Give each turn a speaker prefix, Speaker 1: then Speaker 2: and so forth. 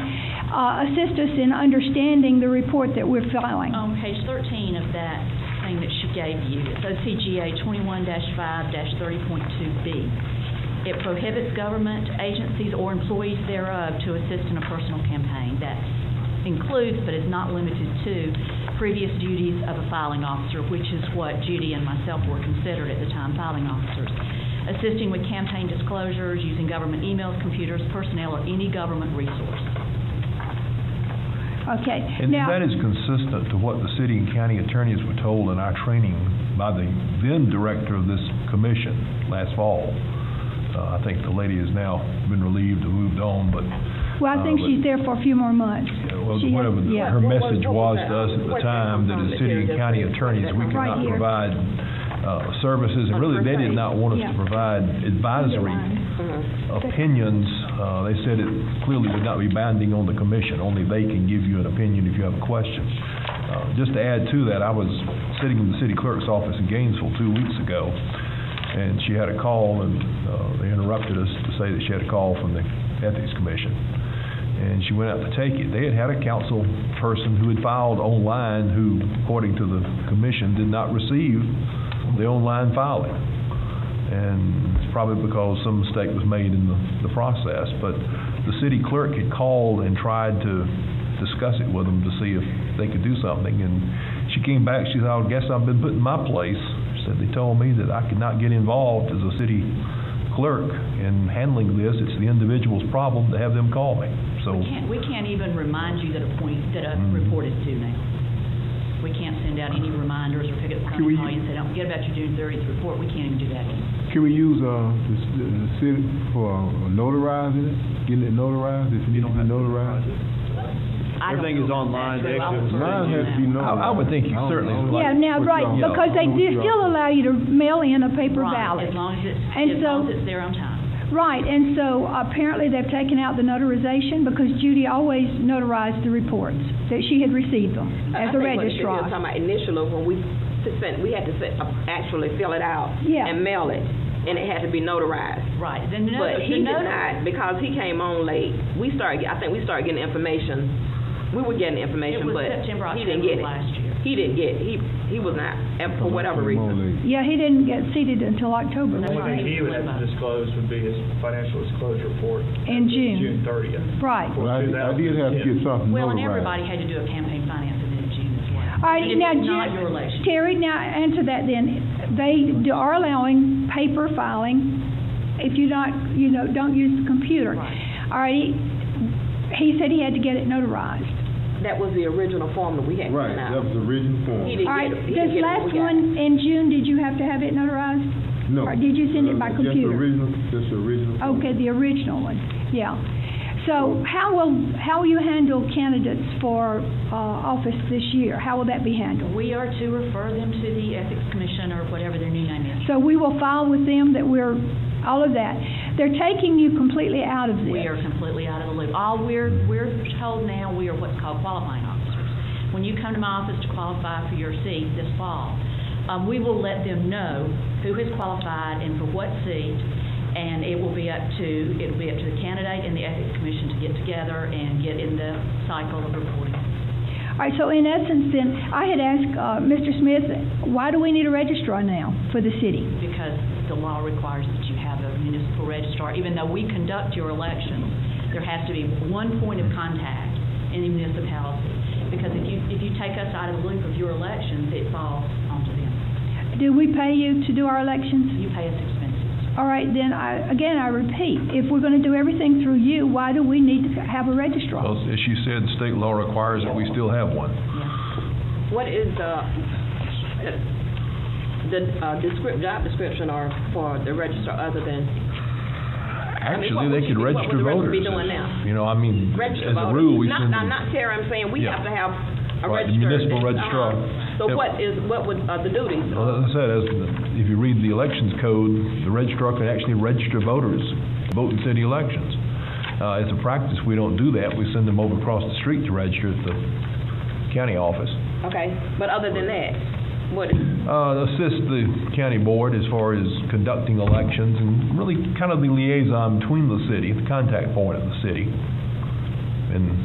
Speaker 1: uh, assist us in understanding the report that we're filing.
Speaker 2: On page 13 of that thing that she gave you, it's OCGA 21-5-30.2B. It prohibits government agencies or employees thereof to assist in a personal campaign. That includes, but is not limited to, previous duties of a filing officer, which is what Judy and myself were considered at the time filing officers. Assisting with campaign disclosures, using government emails, computers, personnel, or any government resource.
Speaker 3: Oh.
Speaker 1: Okay.
Speaker 4: And
Speaker 1: Now-
Speaker 4: that is consistent to what the city and county attorneys were told in our training by the then director of this commission last fall. Uh, I think the lady has now been relieved and moved on, but,
Speaker 1: Well, I think
Speaker 4: uh, but-
Speaker 1: she's there for a few more months.
Speaker 4: yeah, well,
Speaker 1: She has-
Speaker 4: whatever, the-
Speaker 1: yeah.
Speaker 4: her
Speaker 3: What was-
Speaker 4: message
Speaker 3: what was
Speaker 4: was
Speaker 3: that?
Speaker 4: to us at the
Speaker 3: Where's that
Speaker 4: time that
Speaker 3: from
Speaker 4: as
Speaker 3: that
Speaker 4: city
Speaker 3: you
Speaker 4: and
Speaker 3: just
Speaker 4: county
Speaker 3: said?
Speaker 4: attorneys, we
Speaker 3: Right
Speaker 4: cannot
Speaker 1: here.
Speaker 4: provide uh, services, and really, they did not want us to
Speaker 1: Yeah.
Speaker 4: provide advisory opinions. Uh, They said it clearly would not be binding on the commission, only they can give you an opinion if you have a question. Uh, Just to add to that, I was sitting in the city clerk's office in Gainesville two weeks ago, and she had a call, and uh, they interrupted us to say that she had a call from the Ethics Commission. And she went out to take it. They had had a council person who had filed online, who, according to the commission, did not receive the online filing and it's probably because some mistake was made in the, the process, but the city clerk had called and tried to discuss it with them to see if they could do something, and she came back, she said, I guess I've been put in my place. She said, they told me that I could not get involved as a city clerk in handling this, it's the individual's problem to have them call me, so.
Speaker 2: We can't, we can't even remind you that a point, that a
Speaker 5: Mm.
Speaker 2: report is due now. We can't send out any reminders or pick up the
Speaker 5: Can
Speaker 2: phone
Speaker 5: we-
Speaker 2: and call you and say, don't forget about your June thirtieth report, we can't even do that anymore.
Speaker 5: Can we use, uh, the, c- the city for notarizing it, getting it notarized, if it needs to be notarized?
Speaker 2: I don't
Speaker 6: Everything is
Speaker 2: know about
Speaker 6: online,
Speaker 2: that, so I would
Speaker 6: Dixie.
Speaker 5: Mine
Speaker 2: prefer
Speaker 5: has to be
Speaker 2: you now.
Speaker 5: notarized.
Speaker 4: I- I would think you
Speaker 5: I don't
Speaker 4: certainly
Speaker 5: know.
Speaker 4: like-
Speaker 1: Yeah, now, right,
Speaker 5: Withdraw.
Speaker 1: because they
Speaker 5: Yeah.
Speaker 1: do still allow you to mail in a paper
Speaker 2: Right,
Speaker 1: ballot.
Speaker 2: As long as it's,
Speaker 1: And
Speaker 2: as
Speaker 1: so-
Speaker 2: long as it's there on time.
Speaker 1: Right, and so apparently they've taken out the notarization because Judy always notarized the reports, that she had received them as a
Speaker 3: I think
Speaker 1: registrar.
Speaker 3: what they did, um, they were talking about initial, when we s- sent, we had to s- actually fill it out.
Speaker 1: Yeah.
Speaker 3: And mail it, and it had to be notarized.
Speaker 2: Right, then the notice,
Speaker 3: But
Speaker 2: the
Speaker 3: he did
Speaker 2: notice.
Speaker 3: not, because he came on late, we started, I think we started getting information, we were getting
Speaker 2: It
Speaker 3: information,
Speaker 2: was
Speaker 3: but
Speaker 2: September,
Speaker 3: he didn't get
Speaker 2: October of
Speaker 3: it.
Speaker 2: last year.
Speaker 3: He didn't get, it. he, he was not, and for whatever
Speaker 5: Come on,
Speaker 3: reason.
Speaker 5: lady.
Speaker 1: Yeah, he didn't get seated until October.
Speaker 2: That's
Speaker 6: One
Speaker 2: right.
Speaker 6: thing he would have to disclose would be his financial disclosure report.
Speaker 1: In June.
Speaker 6: June thirtieth.
Speaker 1: Right.
Speaker 5: Well, I, I did have to get something notarized.
Speaker 2: Well, and everybody had to do a campaign finance event in June as well.
Speaker 1: All right,
Speaker 2: Even if
Speaker 1: now,
Speaker 2: it's not
Speaker 1: Ju-
Speaker 2: your election.
Speaker 1: Terry, now answer that then. They do- are allowing paper filing if you not, you know, don't use the computer.
Speaker 2: Right.
Speaker 1: All right, he said he had to get it notarized.
Speaker 3: That was the original form that we had sent
Speaker 5: Right,
Speaker 3: out.
Speaker 5: that was the original form.
Speaker 1: All
Speaker 3: He didn't
Speaker 1: right,
Speaker 3: get it, he
Speaker 1: this
Speaker 3: didn't get it when
Speaker 1: last
Speaker 3: we got it.
Speaker 1: one in June, did you have to have it notarized?
Speaker 5: No.
Speaker 1: Or did you send it by
Speaker 5: Just
Speaker 1: computer?
Speaker 5: original, just original. form.
Speaker 1: Okay, the original one, yeah. So how will, how will you handle candidates for uh, office this year? How will that be handled?
Speaker 2: We are to refer them to the Ethics Commission or whatever their new name is.
Speaker 1: So we will file with them that we're, all of that. They're taking you completely out of this.
Speaker 2: We are completely out of the loop. All we're, we're told now, we are what's called qualifying officers. When you come to my office to qualify for your seat this fall, um, we will let them know who has qualified and for what seat, and it will be up to, it'll be up to the candidate and the ethics commission to get together and get in the cycle of reporting.
Speaker 1: All right, so in essence then, I had asked uh, Mr. Smith, why do we need a registrar now for the city?
Speaker 2: because the law requires that you have a municipal registrar. Even though we conduct your elections, there has to be one point of contact in the municipality. Because if you, if you take us out of the loop of your elections, it falls onto them.
Speaker 1: Do we pay you to do our elections?
Speaker 2: You pay us expenses.
Speaker 1: All right, then, I, again, I repeat, if we're going to do everything through you, why do we need to have a registrar?
Speaker 4: Well, as she said, state law requires that we still have one.
Speaker 3: What is the, the uh, descrip, job description or for the registrar other than, mean, what
Speaker 4: Actually,
Speaker 3: would
Speaker 4: they
Speaker 3: you
Speaker 4: could
Speaker 3: be- what would
Speaker 4: register
Speaker 3: the
Speaker 4: voters.
Speaker 3: registrar be doing now?
Speaker 4: You know, I mean,
Speaker 3: register
Speaker 4: as a
Speaker 3: voter?
Speaker 4: rule, we
Speaker 3: Not-
Speaker 4: send
Speaker 3: I'm
Speaker 4: them-
Speaker 3: not Terry, I'm saying we
Speaker 4: Yeah.
Speaker 3: have to have a
Speaker 4: Right, the
Speaker 3: registered.
Speaker 4: municipal
Speaker 3: uh-huh.
Speaker 4: registrar.
Speaker 3: So
Speaker 4: Yeah.
Speaker 3: what is, what would, uh, the duties?
Speaker 4: Well, as I said, as, the- if you read the elections code, the registrar can actually register voters, to vote in city elections. Uh, as a practice, we don't do that, we send them over across the street to register at the county office.
Speaker 3: Okay, but other than that, what is?
Speaker 4: Uh, assist the county board as far as conducting elections and really kind of the liaison between the city, the contact point of the city. And